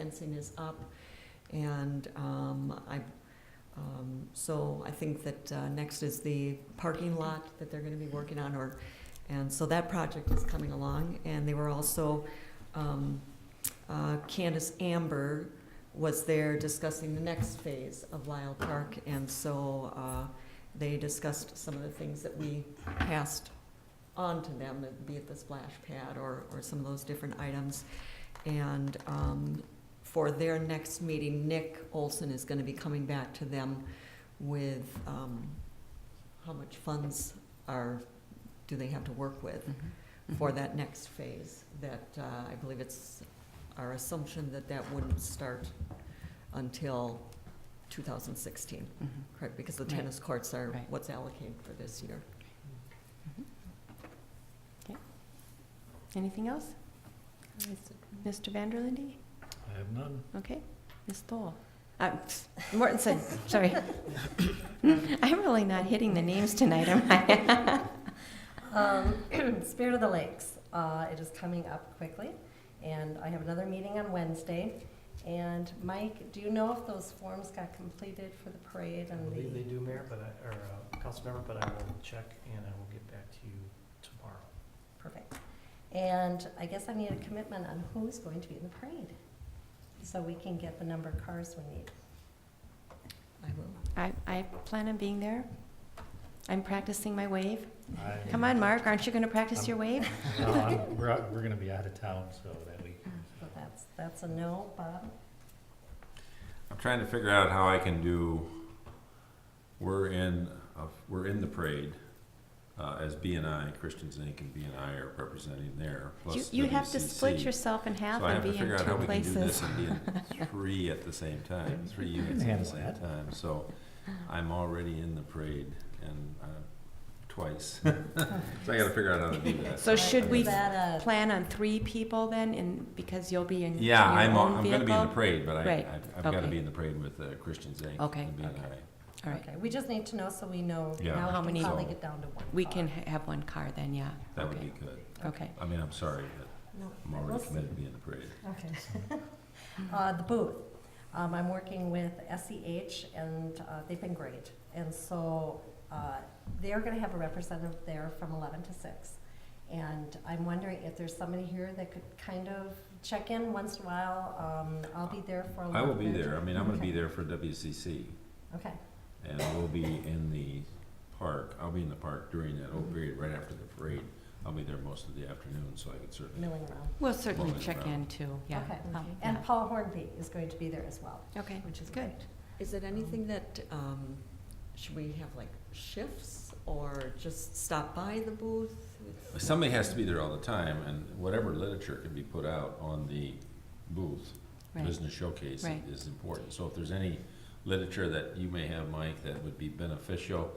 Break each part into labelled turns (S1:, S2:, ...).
S1: fencing is up, and um, I, um, so I think that uh, next is the parking lot that they're gonna be working on, or, and so that project is coming along, and they were also, um, uh, Candace Amber was there discussing the next phase of Lyle Park, and so uh, they discussed some of the things that we passed on to them, be it the splash pad or, or some of those different items. And um, for their next meeting, Nick Olson is gonna be coming back to them with um, how much funds are, do they have to work with
S2: Mm-hmm.
S1: for that next phase, that uh, I believe it's our assumption that that wouldn't start until 2016,
S2: Mm-hmm.
S1: correct? Because the
S2: Right.
S1: tennis courts are
S2: Right.
S1: what's allocated for this year.
S2: Mm-hmm. Anything else? Mr. Vanderlinde?
S3: I have none.
S2: Okay. Ms. Thole? Uh, Mortensen, sorry. I'm really not hitting the names tonight, am I?
S4: Um, Spirit of the Lakes, uh, it is coming up quickly, and I have another meeting on Wednesday. And Mike, do you know if those forms got completed for the parade
S3: I
S4: and
S3: believe they
S4: the?
S3: do, Mayor, but I, or, uh, Councilmember, but I will check and I will get back to you tomorrow.
S4: Perfect. And I guess I need a commitment on who's going to be in the parade, so we can get the number of cars we need.
S1: I will.
S2: I, I plan on being there. I'm practicing my wave.
S3: I-
S2: Come on, Mark, aren't you going to practice
S5: Um,
S2: your wave?
S3: No, I'm- we're, out- we're gonna be out of town, so that we.
S4: So that's, that's a no, Bob.
S5: I'm trying to figure out how I can do. We're in a, we're in the parade uh, as BNI Christians Inc. and BNI are representing there. Plus
S2: You, you have to
S5: WCC.
S2: split yourself in half
S5: so I
S2: and
S5: have to
S2: be
S5: figure
S2: in
S5: out how
S2: two
S5: we can do
S2: places.
S5: this and be in three at the same time, three units at the
S3: handle
S5: same
S3: that.
S5: time. So I'm already in the parade and uh, twice. so I got to figure out how to do that.
S2: So should we
S4: Is that a,
S2: plan on three people then, and, because you'll be in your
S5: Yeah, I'm
S2: own
S5: I'm going to be in the
S2: vehicle?
S5: parade, but I,
S2: Right,
S5: I've, I've got to
S2: okay.
S5: be in the parade with uh, Christians Inc.
S2: Okay,
S5: and BNI.
S2: All right,
S4: okay, we just need to know so we know.
S5: Yeah.
S4: Now
S2: How
S4: we
S2: many-
S4: can probably get down to one.
S2: we
S4: car.
S2: can ha- have one car then, yeah.
S5: That would
S2: Okay.
S5: be good.
S2: Okay.
S5: I mean, I'm sorry, but
S4: No,
S5: I'm already
S4: let's-
S5: committed to being in the parade.
S4: Okay. Uh, The booth, Um, I'm working with SEH, and uh, they've been great. And so uh, they're going to have a representative there from 11 to 6. And I'm wondering if there's somebody here that could kind of check in once in a while. Um, I'll be there for a
S5: I
S4: little
S5: will
S4: bit.
S5: be there. I mean, I'm gonna be
S4: Okay.
S5: there for WCC,
S4: Okay,
S5: and we'll be in the park. I'll be in the park during that whole period, right after the parade. I'll be there most of the afternoon, so I could certainly.
S4: milling around.
S2: We'll certainly
S5: Well,
S2: check
S5: yeah.
S2: in too, yeah.
S4: Okay.
S2: Um,
S4: And
S2: yeah.
S4: Paul Hornby is going to be there as well,
S2: Okay,
S4: which is
S2: Good.
S4: great.
S1: Is it anything that, um, should we have like shifts or just stop by the booth? It's-
S5: Somebody has to be there all the time, and whatever literature can be put out on the booth,
S2: right,
S5: business showcase
S2: Right.
S5: is important. So if there's any literature that you may have, Mike, that would be beneficial,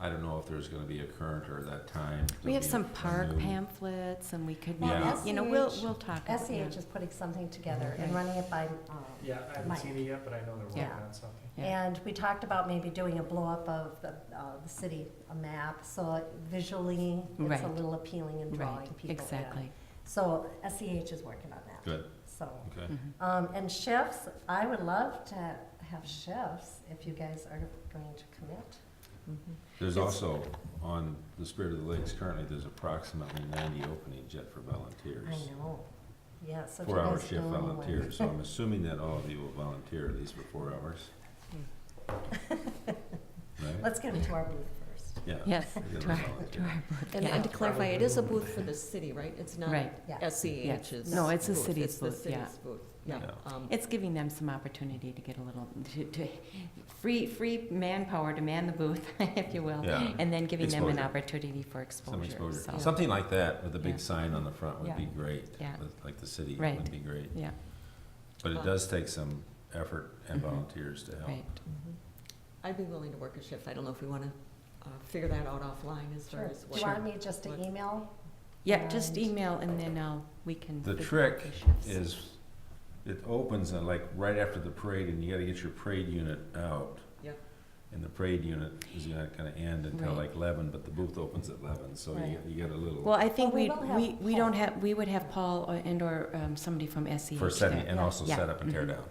S5: I don't know if there's gonna be a current or that time.
S2: we have
S5: There'll
S2: some
S5: be a- a
S2: park
S5: new-
S2: pamphlets and we could,
S5: Yeah.
S2: you know, we'll,
S4: SEH
S2: we'll talk. about- yeah.
S4: SEH E is putting something together and
S2: Right.
S4: running it by um,
S3: Yeah, I haven't
S4: Mike.
S3: seen it yet, but I know they're working
S4: Yeah.
S3: on something.
S2: Yeah.
S4: And we talked about maybe doing a blow-up of the, uh, the city, a map, so visually, it's
S2: Right.
S4: a little appealing and
S2: Right,
S4: drawing people in.
S2: exactly.
S4: So SEH is working on that,
S5: Good,
S4: so.
S5: okay.
S2: Mhm.
S4: Um, and chefs, I would love to have chefs if you guys are going to commit.
S1: Mhm.
S5: There's
S4: It's-
S5: also, on the Spirit of the Lakes, currently, there's approximately ninety openings yet for
S4: I
S5: volunteers.
S4: know, yes. if you
S5: Four-hour
S4: guys
S5: shift
S4: know anyone.
S5: volunteers, so I'm assuming that all of you will volunteer at least for four hours. Right?
S4: Let's get them to our booth first,
S5: Yeah.
S2: Yes,
S5: you're
S2: to
S5: gonna
S2: our,
S5: volunteer.
S2: to our booth,
S1: And and
S2: yeah.
S1: to clarify, it is a booth for the city, right? It's not
S2: Right,
S4: yeah.
S1: SEH's.
S2: No, it's the
S1: E booth.
S2: city's
S1: It's the
S2: booth, yeah.
S1: city's booth, yeah.
S5: Yeah.
S1: Um,
S2: it's giving them some opportunity to get a little, to, to, free, free manpower to man the booth, if you will.
S5: Yeah.
S2: And then giving them an
S5: Exposure.
S2: opportunity for
S5: Some
S2: exposure, so,
S5: exposure. Something like that with a
S2: Yeah.
S5: big sign on the front would
S2: Yeah.
S5: be great.
S2: Yeah.
S5: With- Like the city
S2: Right.
S5: would be great.
S2: yeah,
S5: But it does take some effort and
S2: Mhm.
S5: volunteers to help.
S2: right.
S1: mhm. I'd be willing to work a shift. I don't know if we want to figure that out offline as far
S4: sure.
S1: as
S4: Do
S1: what.
S4: you want me just to
S1: What-
S4: email?
S2: Yeah, just
S4: And-
S2: email and then i we can.
S5: The
S2: figure out
S5: trick
S2: shifts.
S5: is uh, it opens and like right after the parade and you gotta get your parade unit out.
S1: Yep.
S5: And the parade unit is not gonna end until
S2: Right.
S5: like eleven, but the booth opens at eleven, so you,
S2: Right.
S5: you get a little,
S2: Well, I think
S4: Oh, we
S2: we,
S4: will have
S2: we, we don't
S4: Paul.
S2: have, we would have Paul or- and or um, somebody from SEH
S5: for setting,
S2: there.
S5: and also
S2: Yeah.
S5: set up and tear
S2: Mhm.
S5: down.